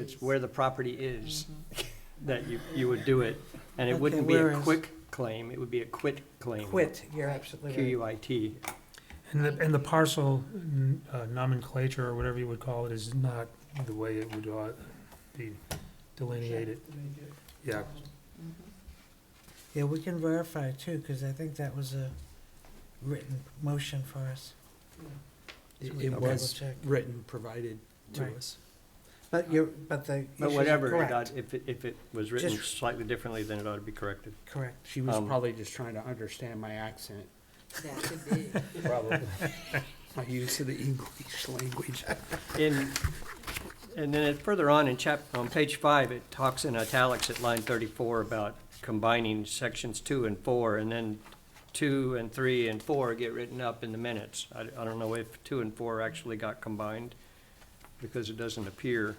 it's where the property is that you, you would do it. And it Okay, wouldn't be where a is- quick claim, it would be a quit claim. Quit, you're absolutely Q right. U I T. And the, and the parcel n- uh, nomenclature, or whatever you would call it, is not the way it would ought be delineated. Yeah, Mm-hmm. Yeah, we can verify too, because I think that was a written motion for us. So we It can was double check. written, provided to Right. us. But you're, but the But issues are whatever, it ought- correct. if, it- if it was written Just- slightly differently, then it ought to be corrected. Correct. She was Um, probably just trying to understand my accent, Mm-hmm. That could be. probably. My use of the English language. In, and then it- further on in chap, on page five, it talks in italics at line thirty-four about combining sections two and four, and then two and three and four get written up in the minutes. I, I don't know if two and four actually got combined, because it doesn't appear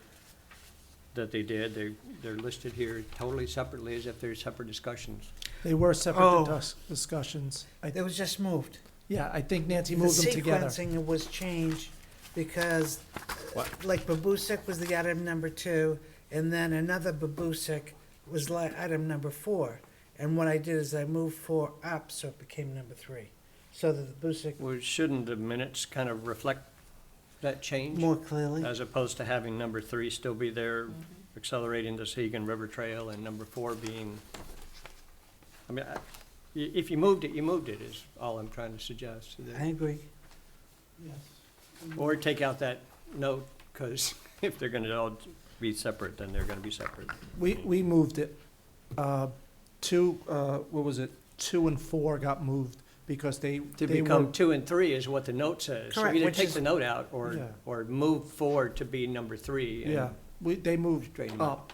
that they did. They, they're listed here totally separately as if they're separate discussions. They were Oh. separate dis- discussions. I, It was just moved. yeah, I think Nancy moved them together. The sequencing was changed because, like, Babusik was the item number two, and then another Babusik was like item number four. And what I did is I moved four up, so it became number three, so that the Babusik Well, shouldn't the minutes kind of reflect that change? more clearly. As opposed to having number three still be there, Mm-hmm. accelerating the Seagan River Trail, and number four being, I mean, I- i- if you moved it, you moved it, is all I'm trying to suggest. I agree. Or take out that note, because if they're gonna all be separate, then they're gonna be separate. We, we moved it. Uh, Two, uh, what was it? Two and four got moved because they, To they were, become two and three is what the note says. So Correct, either which take is- the note out, or, Yeah. or move four to be number three. and- yeah, we, they moved Straighten them up.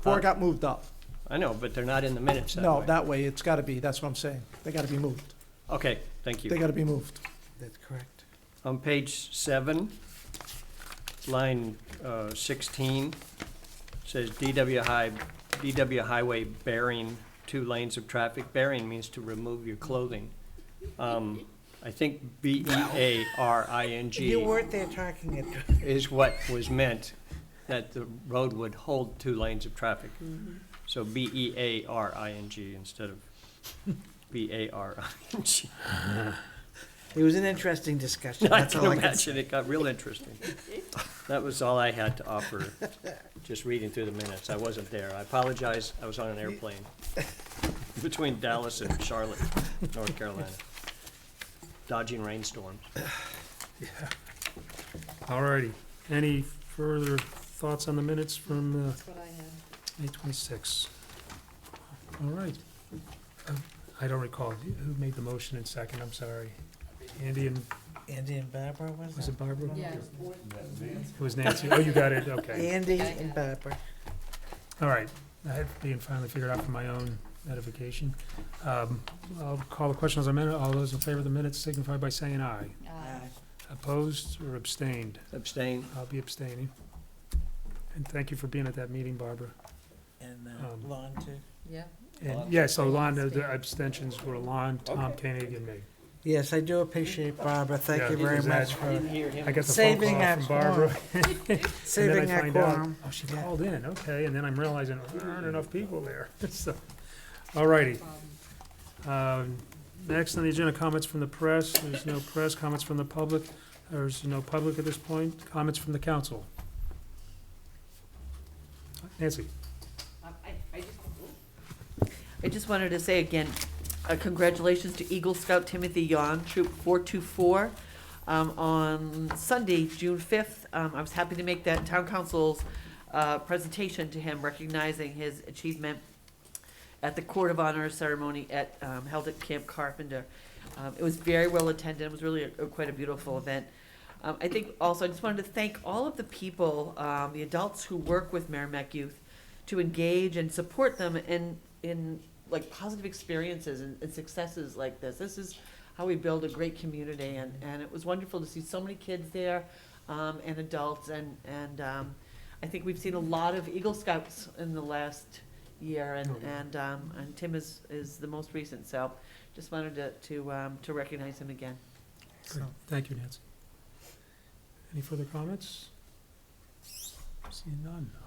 Four Huh? got moved up. I know, but they're not in the minutes that No, way. that way, it's gotta be, that's what I'm saying. They gotta be moved. Okay, thank you. They gotta be moved. That's correct. On page seven, line uh, sixteen, says DW High, DW Highway bearing two lanes of traffic. Bearing means to remove your clothing. Um, I think B E A R I N You G weren't there talking it. is what was meant, that the road would hold two lanes of traffic. So B E A R I N G instead of B A R I N G. It was an interesting discussion, I that's can all I can say. imagine, it got real interesting. That was all I had to offer, just reading through the minutes, I wasn't there, I apologize, I was on an airplane between Dallas and Charlotte, North Carolina, dodging rainstorms. all righty. Any further thoughts on the minutes from uh, That's what I have. May 26? All right. Um, I don't recall, who made the motion in second, I'm sorry. Andy and, Andy and Barbara, was was it? it Barbara? Yeah. It was Nancy, oh, you got it, okay. Andy Yeah, yeah. and Barbara. All right, I had being finally figured out for my own edification. Um, I'll call the question as a minute. All those in favor of the minutes signify by saying aye. Uh, Opposed or abstained? Abstain, I'll be abstaining. And thank you for being at that meeting, Barbara. And uh, Um, Lon too. Yeah. And, yeah, so Lon, the- the abstentions were Lon, Tom Koenig, and me. Yes, I do appreciate Barbara, thank Yeah, you he very was much at- I for didn't hear him. I got the phone Saving call our from Barbara. and then I saving our find out, quorum. Oh, she Yeah. called in, okay, and then I'm realizing there aren't enough people there, so. All righty, problem. Um, Next on the agenda, comments from the press. There's no press, comments from the public. There's no public at this point. Comments from the council. Nancy? Um, I- I just- I just wanted to say again, uh, congratulations to Eagle Scout Timothy Yon, Troop 424. Um, On Sunday, June 5th, um, I was happy to make that town council's uh, presentation to him recognizing his achievement at the Court of Honor ceremony at, um, held at Camp Carpenter. Um, It was very well attended, it was really a- quite a beautiful event. Um, I think also, I just wanted to thank all of the people, um, the adults who work with Merrimack Youth to engage and support them in in like positive experiences and, and successes like this. This is how we build a great community, and, and it was wonderful to see so many kids there, um, and adults, and and um, I think we've seen a lot of Eagle Scouts in the last year, and Oh, yeah. and um, and Tim is is the most recent. So, just wanted to to um, to recognize him again. Great. Thank you, Nancy. Any further comments? Seeing none.